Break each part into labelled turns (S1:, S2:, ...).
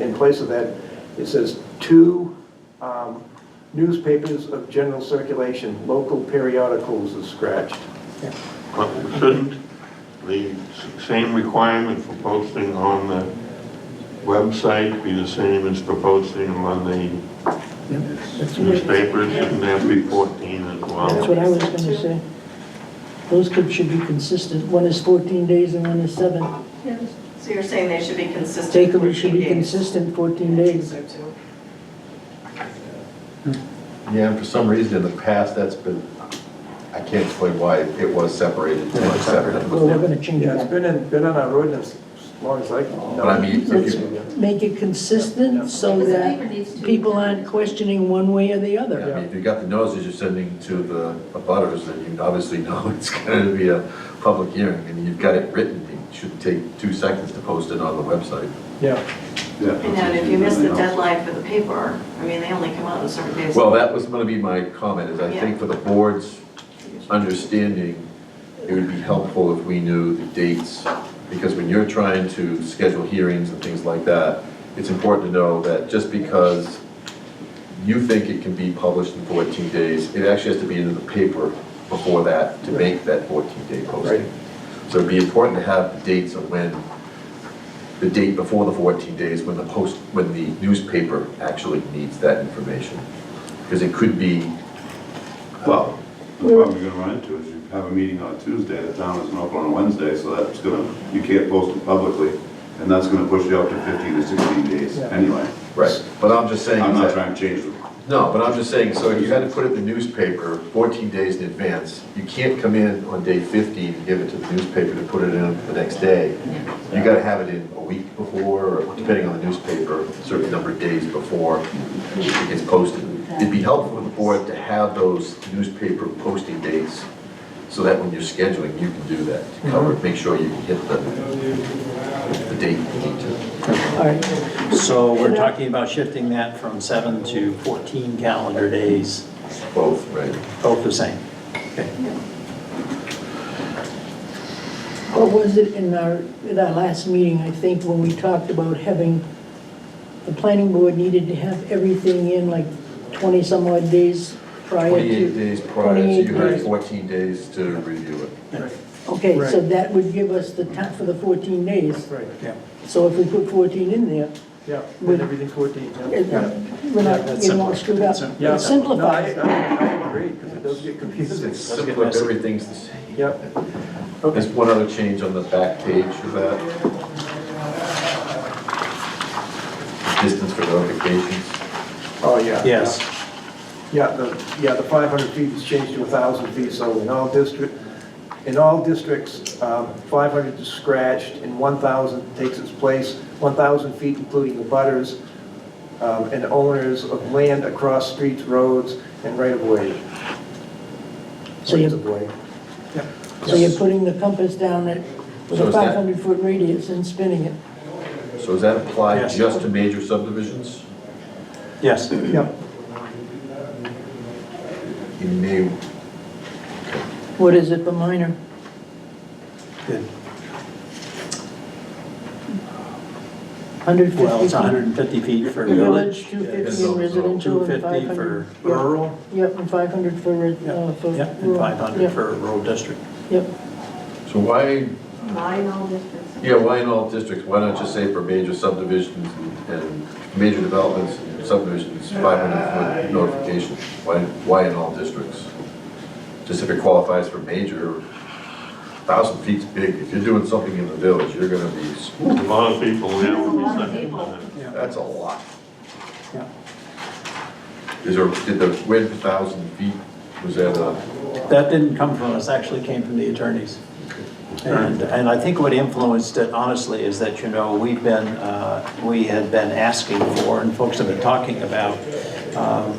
S1: In place of that, it says two um, newspapers of general circulation, local periodicals is scratched.
S2: But shouldn't the s- same requirement for posting on the website be the same as for posting on the
S3: That's what I-
S2: newspapers? Shouldn't that be 14 as
S3: that's what
S2: well?
S3: I was gonna say. Those could, should be consistent, one is 14 days and one is seven.
S4: So you're saying they should be consistent?
S3: Take them, it should
S4: 14
S3: be
S4: days?
S3: consistent 14 days.
S4: I think so too.
S5: Yeah, and for some reason in the past, that's been, I can't explain why it was separated, it was separate.
S3: Well, we're gonna change
S1: Yeah, it's
S3: that.
S1: been in, been on our ordinance as long as I can. know.
S5: But I mean, if
S3: Let's
S5: you,
S3: make it consistent so
S6: Because the
S3: that
S6: paper needs to be
S3: people
S6: done.
S3: aren't questioning one way or the
S5: I mean,
S3: other.
S5: if you got the notices you're sending to the abutters, then you obviously know it's gonna be a public hearing, and you've got it written, it should take two seconds to post it on the website.
S1: Yeah,
S4: And then if you miss the deadline for the paper, I mean, they only come out on certain days.
S5: Well, that was gonna be my comment, is I think for the board's understanding, it would be helpful if we knew the dates, because when you're trying to schedule hearings and things like that, it's important to know that just because you think it can be published in 14 days, it actually has to be in the paper before that to make that 14-day
S1: Right.
S5: posting. So it'd be important to have the dates of when, the date before the 14 days, when the post, when the newspaper actually needs that information. Because it could be,
S7: Well, the problem you're gonna run into is you have a meeting on Tuesday, the town isn't open on Wednesday, so that's gonna, you can't post it publicly, and that's gonna push you up to fifteen to sixteen days
S1: Yeah.
S7: anyway.
S5: right, but I'm just saying.
S7: I'm
S5: is
S7: not
S5: that-
S7: trying to change them.
S5: No, but I'm just saying, so if you had to put it in the newspaper 14 days in advance, you can't come in on day 15 and give it to the newspaper to put it in the next day. You gotta have it in a week before, or depending on the newspaper, a certain number of days before it gets posted. It'd be helpful for the board to have those newspaper posting dates, so that when you're scheduling, you can do that, to cover, make sure you can hit the, the date you need to.
S3: All right,
S8: So we're talking about shifting that from seven to 14 calendar days,
S5: Both, right?
S8: both the same.
S3: what was it in our, in our last meeting, I think, when we talked about having, the planning board needed to have everything in like 20-some odd days prior to.
S5: 28 days prior, so you
S3: 28
S5: had
S3: days.
S5: 14 days to review it.
S3: Okay, so
S1: Right.
S3: that would give us the time for the 14 days.
S1: right,
S8: Yeah.
S3: So if we put 14 in there,
S1: yeah, and everything 14, yeah.
S3: it-
S1: yeah.
S3: we're
S8: Yeah,
S3: not
S8: that's
S3: getting all
S8: simple.
S3: screwed up.
S8: That's
S1: Yeah.
S3: It simplifies.
S1: No, I, I I agree, because it does get confusing.
S5: It's
S8: Let's get
S5: simple,
S8: messy.
S5: everything's the same.
S1: Yep.
S5: There's one other change on the back page of that. Distance for notifications.
S1: Oh, yeah.
S8: Yes,
S1: Yeah, the, yeah, the 500 feet is changed to 1,000 feet, so in all district, in all districts, um, 500 is scratched, and 1,000 takes its place, 1,000 feet including the butters um, and owners of land across streets, roads, and right-of-way.
S3: So you-
S1: Rights of way.
S3: So you're putting the compass down at, with
S5: So
S3: a
S5: is that-
S3: 500-foot radius and spinning it.
S5: So does that apply
S8: Yes.
S5: just to major subdivisions?
S8: yes.
S1: Yep,
S5: You may,
S3: What is it, the minor?
S8: Good.
S3: 150
S8: Well, it's
S3: feet.
S8: 150 feet for
S3: Village,
S8: village.
S3: 250
S5: yeah,
S3: in residential, and
S8: 250
S3: 500.
S8: for
S3: yeah.
S8: rural.
S3: Yep, and 500 for, re- uh, for.
S8: Yep, and
S3: rural.
S8: 500
S3: Yep,
S8: for rural district.
S3: Yep,
S5: so why,
S6: Mine all districts.
S5: yeah, why in all districts? Why not just say for major subdivisions and- and major developments, and subdivisions, 500 foot notification? Why, why in all districts? Just if it qualifies for major, 1,000 feet's big. If you're doing something in the village, you're gonna be,
S2: A lot of people now
S6: That's a
S2: would be
S6: lot of
S2: second
S6: people.
S2: on it.
S5: that's a lot.
S8: Yeah.
S5: Is there, did the, where did the 1,000 feet, was that a?
S8: That didn't come from us, actually came from the attorneys. And, and I think what influenced it honestly is that, you know, we've been, uh, we had been asking for, and folks have been talking about, um,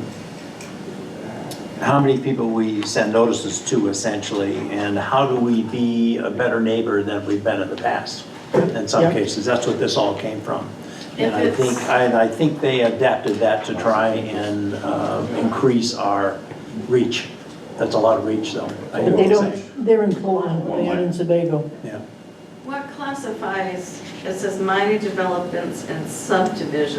S8: how many people we send notices to essentially, and how do we be a better neighbor than we've been in the past? In
S3: Yeah.
S8: some cases, that's what this all came from. And I
S4: If
S8: think,
S4: it's-
S8: and I think they adapted that to try and uh, increase our reach. That's a lot of reach, though. I hear
S3: but they
S8: what you're saying.
S3: don't, they're in Portland, they're not in Sebago.
S8: Yeah.
S6: What
S4: classifies, it says minor developments and subdivisions.